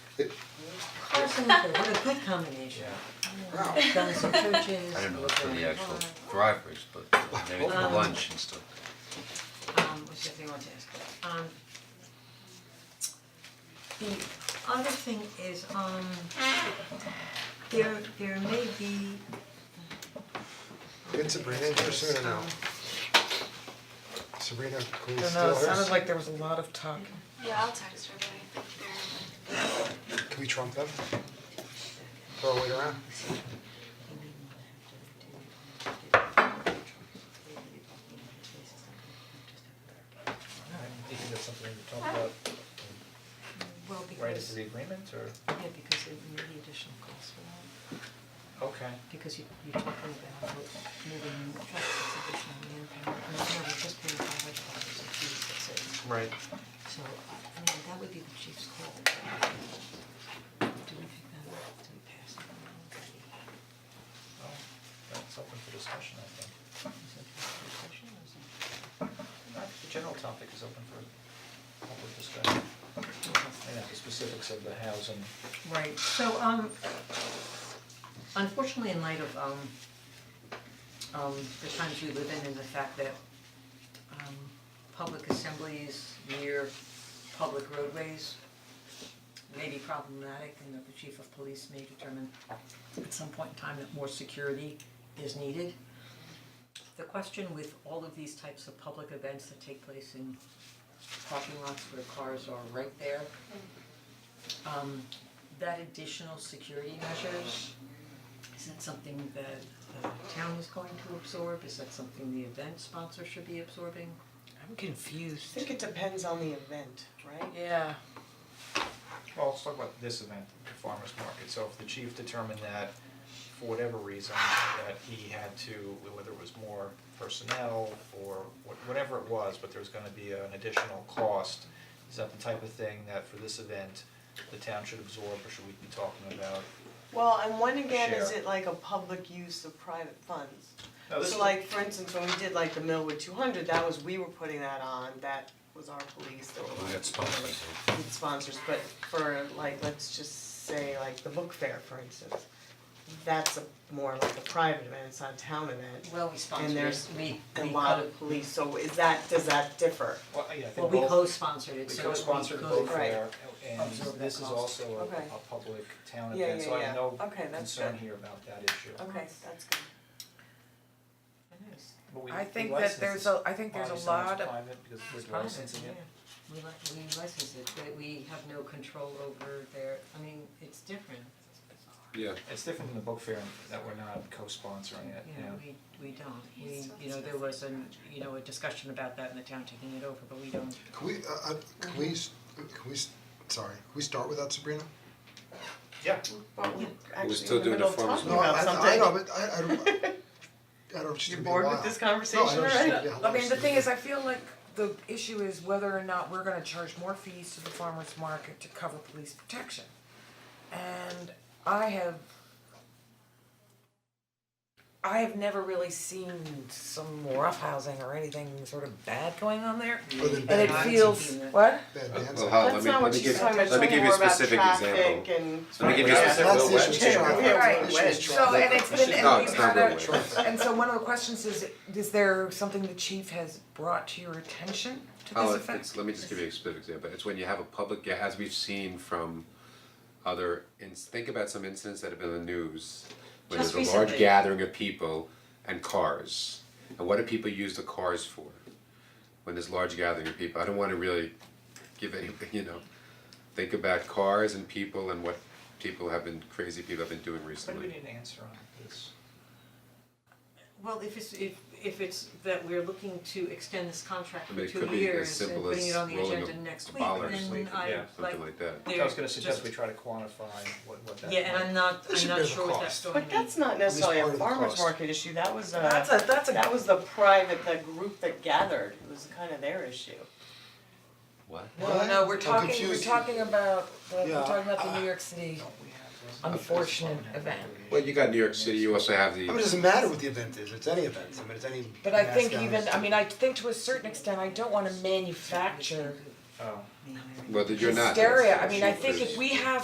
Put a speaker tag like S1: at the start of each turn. S1: Cars and liquor, what a good combination. Um,
S2: Wow.
S1: Guns and churches.
S3: I didn't look for the actual drivers, but maybe for
S1: Um,
S3: lunch and stuff.
S1: Um, what's the other thing I want to ask? Um. The other thing is, um, there, there may be,
S2: Get Sabrina in here soon now. Sabrina, can we
S4: I don't
S2: steal
S4: know, it
S2: hers?
S4: sounded like there was a lot of talk.
S5: Yeah, I'll text her, but I think they're
S2: Can we trump them? Throw it around?
S6: I think that's something we can talk about
S1: well,
S6: right as
S1: because,
S6: the agreement or,
S1: yeah, because there may be additional costs for that,
S6: okay.
S1: because you, you're talking about moving trucks, it's additional manpower, and it's not just paying five hundred dollars a piece, that's it.
S6: Right.
S1: So, I mean, that would be the chief's call. Do we pick that up, do we pass it on?
S6: Well, Oh, that's open for discussion, I think.
S1: Is that a discussion or is it-
S6: I think The general topic is open for public discussion, and the specifics of the housing.
S1: Right, so um unfortunately in light of um um the times we live in and the fact that um public assemblies near public roadways may be problematic and that the chief of police may determine at some point in time that more security is needed. The question with all of these types of public events that take place in parking lots where cars are right there um that additional security measures, is that something that the town is going to absorb, is that something the event sponsor should be absorbing? I'm
S4: I
S1: confused.
S4: think it depends on the event, right?
S1: Yeah,
S6: Well, let's talk about this event, the farmer's market, so if the chief determined that, for whatever reason, that he had to, whether it was more personnel or wha- whatever it was, but there was gonna be an additional cost, is that the type of thing that for this event, the town should absorb, or should we be talking about?
S4: Well, and when again is
S6: Share.
S4: it like a public use of private funds?
S6: No, Oh, this
S4: So
S6: is-
S4: like, for instance, when we did like the Millwood two hundred, that was, we were putting that on, that was our police, that were
S3: We
S4: like.
S3: got sponsors.
S4: with sponsors, but for like, let's just say like the book fair, for instance. That's a more like a private event, it's not a town event,
S1: well, we sponsor
S4: And
S1: it,
S4: there's
S1: we
S4: a
S1: we
S4: lot
S1: co-
S4: of police, so is that, does that differ?
S6: Well, yeah, I
S1: well,
S6: think
S1: we
S6: both,
S1: co-sponsored it,
S6: we
S1: so we
S6: co-sponsored
S1: could-
S6: both
S4: Right.
S6: there, and
S1: Absorb that
S6: this is
S1: cost.
S6: also a,
S4: Okay.
S6: a public town
S4: Yeah,
S6: event,
S4: yeah,
S6: so I
S4: yeah.
S6: have no
S4: Okay, that's
S6: concern
S4: good.
S6: here about that issue.
S4: Okay, that's good.
S1: Nice.
S6: But we-
S4: I
S6: we
S4: think that
S6: license
S4: there's
S6: this.
S4: a- I think there's a
S6: Obviously, it's
S4: lot of-
S6: private because we're
S1: private,
S6: licensing it.
S1: yeah. We li- we license it, but we have no control over their, I mean, it's different,
S3: Yeah.
S6: It's different than the book fair in that we're not co-sponsoring
S3: Uh,
S6: it,
S1: you
S6: yeah.
S1: know, we we don't, we, you know, there was an, you know, a discussion about that in the town taking it over, but we don't
S2: Can we, uh, uh, can we, s- can we, s- sorry, can we start without Sabrina?
S6: Yeah.
S4: But we're
S3: still
S4: actually in the
S3: doing
S4: middle
S3: the
S4: of
S3: farmer's
S4: talking
S2: No, I,
S4: about
S2: I-
S4: something.
S2: I know, but I, I don't, I don't, she's
S4: You're
S2: gonna be
S4: bored
S2: wild.
S4: with this conversation
S2: No, I know, she's gonna
S4: already?
S2: be
S4: I
S2: wild.
S7: I mean, the thing is, I feel like the issue is whether or not we're gonna charge more fees to the farmer's market to cover police protection. And I have. I have never really seen some roughhousing or anything sort of bad going on there.
S2: Other than
S7: And
S2: bad
S7: it
S1: I've
S2: dancing,
S7: feels,
S1: seen that.
S7: what?
S2: bad
S3: Well,
S2: dancing.
S3: how- let
S4: That's
S3: me, let
S4: not what
S3: me
S4: she's
S3: give,
S4: talking about,
S3: let me
S4: she's
S3: give
S4: talking
S3: you a
S4: more about
S3: specific example.
S4: traffic and.
S3: Let me give you a
S4: Yeah,
S3: specific,
S2: that's
S3: Will
S2: the issue
S3: West.
S2: she's trying to-
S4: Yeah,
S7: Right.
S2: that's the issue she's
S7: So,
S2: trying to-
S7: and it's been,
S3: No,
S7: and
S3: it's
S7: we've
S3: not
S7: had
S3: real
S7: a, and so one of the questions is, is there something the chief has brought to your attention to
S3: Oh,
S7: this
S3: it-
S7: effect?
S3: it's, let me just give you a specific example, it's when you have a public, ga- as we've seen from other, ins- think about some incidents that have been in the news. When
S1: Just
S3: there's a large
S1: recently.
S3: gathering of people and cars, and what do people use the cars for? When there's large gathering of people, I don't wanna really give any, you know, think about cars and people and what people have been, crazy people have been doing
S6: What do we
S3: recently.
S6: need an answer on this?
S1: Well, if it's, if, if it's that we're looking to extend this contract for
S3: I mean, it
S1: two
S3: could be as
S1: years and
S3: simple
S1: putting
S3: as
S1: it on the
S3: rolling a-
S1: agenda next
S3: a
S1: week,
S3: ball or
S1: then
S3: something,
S1: I
S6: yeah,
S1: like,
S3: Something like that.
S6: I was gonna
S1: there's
S6: suggest
S1: just-
S6: we try to quantify what what that
S1: Yeah, and I'm not,
S2: should
S1: I'm
S2: be
S1: not
S2: a
S1: sure what that's going
S2: cost.
S1: to
S4: But
S1: be.
S4: that's not necessarily
S2: part
S4: a
S2: of the
S4: farmer's
S2: cost.
S4: market issue, that was
S7: That's
S4: a,
S7: a, that's a,
S4: that was the private, the group that gathered, it was kind of their issue.
S3: What?
S7: no, no, we're
S2: I'm
S7: talking, we're
S2: confused.
S7: talking about, the-
S2: Yeah,
S7: we're talking about the New York City. Unfortunate event.
S3: Well, you got New York City, you also have the.
S2: I mean, it doesn't matter what the event is, it's any event, I mean, it's any.
S7: But I
S2: mass
S7: think
S2: gathering.
S7: even, I mean, I think to a certain extent, I don't wanna manufacture
S6: Oh.
S3: Whether you're not. that's-
S7: hysteria, I
S3: that's
S7: mean, I
S3: your
S7: think if
S3: first-
S7: we have